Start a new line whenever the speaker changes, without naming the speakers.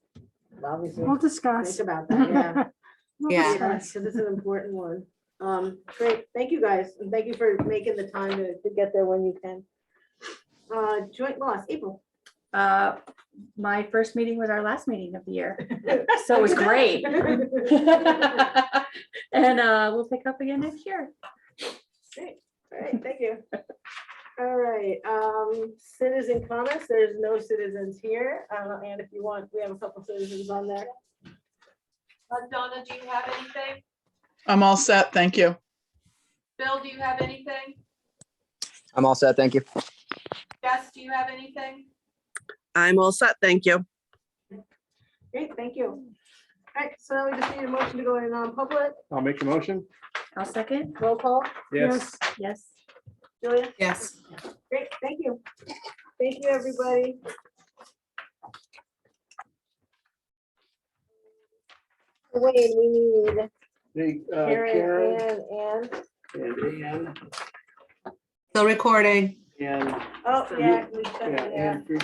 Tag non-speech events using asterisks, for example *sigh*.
obviously,
We'll discuss.
think about that, yeah.
We'll
Yeah.
discuss.
So this is an important one. Um, great, thank you guys, and thank you for making the time to, to get there when you can. Uh, joint loss, April. *laughs*
Uh, my first meeting was our last meeting of the year, so it
*laughs*
was great. *laughs*
Great,
And, uh, we'll pick up again next year.
All right, thank you. All right, um, citizen comments, there's no citizens here, uh, and if you want, we have a couple citizens on there.
Uh, Donna, do you have anything?
I'm all set. Thank you.
Bill, do you have anything?
I'm all set. Thank you.
Jess, do you have anything?
I'm all set, thank you.
Great, thank you. All right, so now we just need a motion to go in non-public,
I'll make a motion.
I'll second.
roll call,
Yes.
Yes.
Julia,
Yes.
great, thank you. Thank you, everybody. Wayne, we need
Hey, uh,
Karen,
Karen
Ann, and,
and Ann
Still recording.
and,
oh, yeah, we
yeah,
said, yeah.
and Rich-